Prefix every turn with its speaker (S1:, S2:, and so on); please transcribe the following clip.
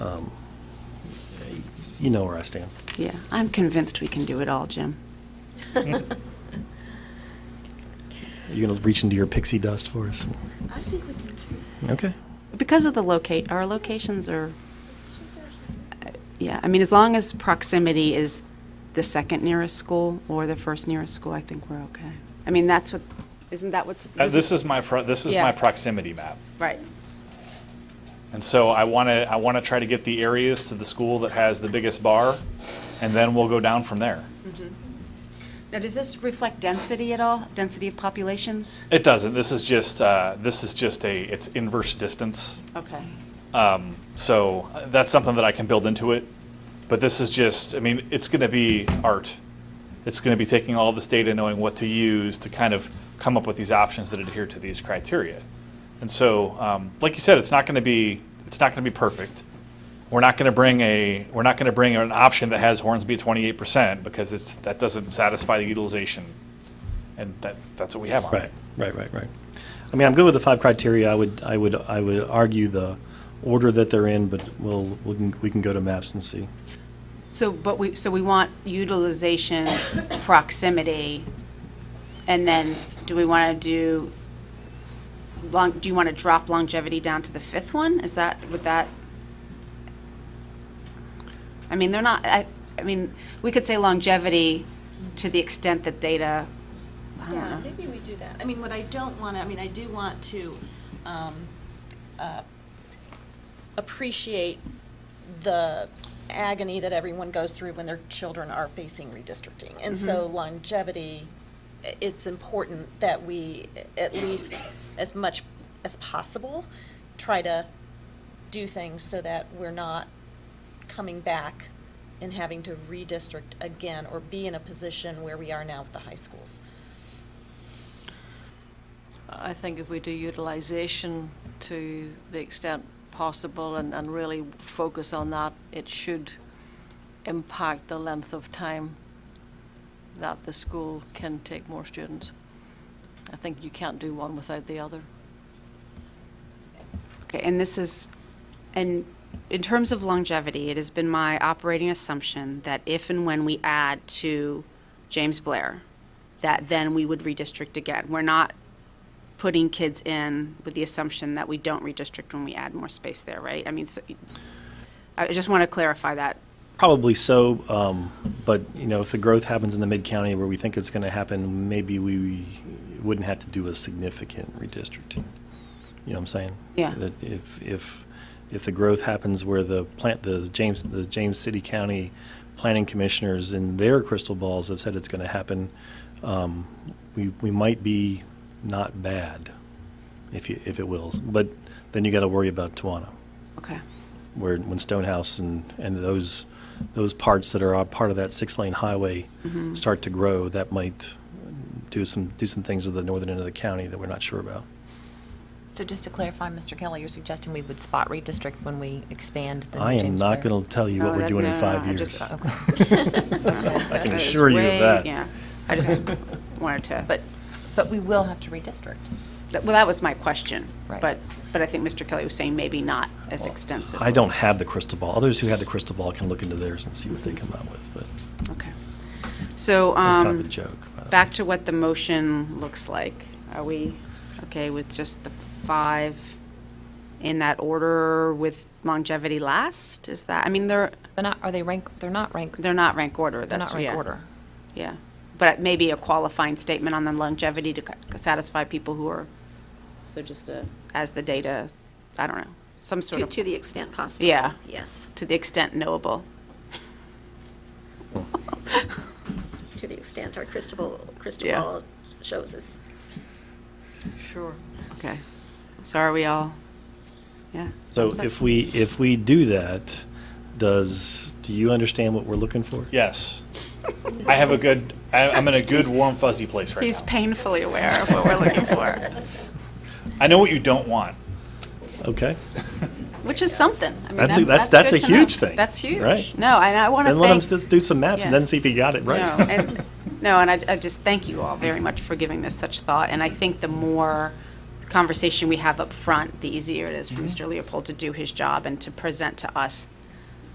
S1: um, you know where I stand.
S2: Yeah, I'm convinced we can do it all, Jim.
S1: You're going to reach into your pixie dust for us?
S3: I think we can too.
S1: Okay.
S2: Because of the locate, our locations are, yeah, I mean, as long as proximity is the second nearest school or the first nearest school, I think we're okay. I mean, that's what, isn't that what's?
S4: Uh, This is my, pro- this is
S2: Yeah.
S4: my proximity map.
S2: Right,
S4: And so I want to, I want to try to get the areas to the school that has the biggest bar, and then we'll go down from there.
S2: now, does this reflect density at all, density of populations?
S4: It doesn't, this is just, uh, this is just a, it's inverse distance.
S2: Okay,
S4: Um, So uh, that's something that I can build into it. But this is just, I mean, it's going to be art. It's going to be taking all this data, knowing what to use to kind of come up with these options that adhere to these criteria. And so, um, like you said, it's not going to be, it's not going to be perfect. We're not going to bring a, we're not going to bring an option that has Hornsby at 28% because it's, that doesn't satisfy the utilization. And that, that's what we have on
S1: Right,
S4: it.
S1: right, right, right. I mean, I'm good with the five criteria. I would, I would, I would argue the order that they're in, but we'll, we can, we can go to maps and see.
S2: so, but we, so we want utilization, proximity, and then do we want to do, long, do you want to drop longevity down to the fifth one? Is that, would that? I mean, they're not, I, I mean, we could say longevity to the extent that data, I don't
S3: Yeah,
S2: know.
S3: maybe we do that. I mean, what I don't want to, I mean, I do want to um, uh, appreciate the agony that everyone goes through when their children are facing redistricting. And so longevity, i- it's important that we, at least as much as possible, try to do things so that we're not coming back and having to redistrict again or be in a position where we are now with the high schools.
S5: I think if we do utilization to the extent possible and, and really focus on that, it should impact the length of time that the school can take more students. I think you can't do one without the other.
S2: Okay, and this is, and in terms of longevity, it has been my operating assumption that if and when we add to James Blair, that then we would redistrict again. We're not putting kids in with the assumption that we don't redistrict when we add more space there, right? I mean, so, I just want to clarify that.
S1: Probably so, um, but, you know, if the growth happens in the mid-county where we think it's going to happen, maybe we wouldn't have to do a significant redistricting. You know what I'm saying?
S2: Yeah.
S1: That if, if, if the growth happens where the plant, the James, the James City County Planning Commissioners in their crystal balls have said it's going to happen, um, we, we might be not bad, if you, if it wills. But then you got to worry about Tawana
S2: Okay.
S1: where when Stonehouse and, and those those parts that are a part of that six lane highway
S2: Mm-hmm.
S1: start to grow, that might do some do some things to the northern end of the county that we're not sure about.
S6: So just to clarify, Mr. Kelly, you're suggesting we would spot redistrict when we expand the
S1: I
S6: James
S1: am not
S6: Blair?
S1: going to tell you what
S2: No,
S1: we're
S2: that-
S1: doing in
S2: no, no,
S1: five
S2: I
S1: years.
S2: just-
S6: Okay.
S1: I can
S2: That is
S1: assure you of
S2: way-
S1: that.
S2: Yeah, I just wanted to.
S6: But, but we will have to redistrict.
S2: That- Well, that was my question.
S6: Right.
S2: But, but I think Mr. Kelly was saying maybe not as extensive.
S1: I don't have the crystal ball. Others who have the crystal ball can look into theirs and see what they come out with. But
S2: Okay. So,
S1: that's kind
S2: um,
S1: of a joke. by the way.
S2: back to what the motion looks like. Are we okay with just the five in that order with longevity last? Is that, I mean, they're,
S6: They're not, are they rank, they're not rank,
S2: they're not rank order.
S6: they're
S2: that's-
S6: not rank
S2: yeah,
S6: order.
S2: Yeah. But maybe a qualifying statement on the longevity to c- satisfy people who are, so just a, as the data, I don't know, some sort
S3: To,
S2: of,
S3: to the extent possible.
S2: Yeah.
S3: Yes,
S2: to the extent knowable.
S3: to the extent our crystal, ball- crystal
S2: Yeah.
S3: ball shows us.
S5: Sure.
S2: Okay. So are we all, yeah?
S1: So if we if we do that, does do you understand what we're looking for?
S4: Yes. I have a good, I- I'm in a good warm fuzzy place right now.
S2: He's painfully aware of what we're looking for,
S4: I know what you don't want.
S1: Okay.
S2: which is something. I mean,
S1: That's a- that's-
S2: good
S1: that's a
S2: to know.
S1: huge thing,
S2: That's huge.
S1: right?
S2: No, and I want to
S1: Then
S2: thank.
S1: let him just do some maps and
S2: yeah.
S1: then see if he got it right.
S2: No, and, no, and I, I just thank you all very much for giving this such thought, and I think the more
S1: Mm-hmm.
S2: conversation we have up front, the easier it is for Mr. Leopold to do his job and to present to us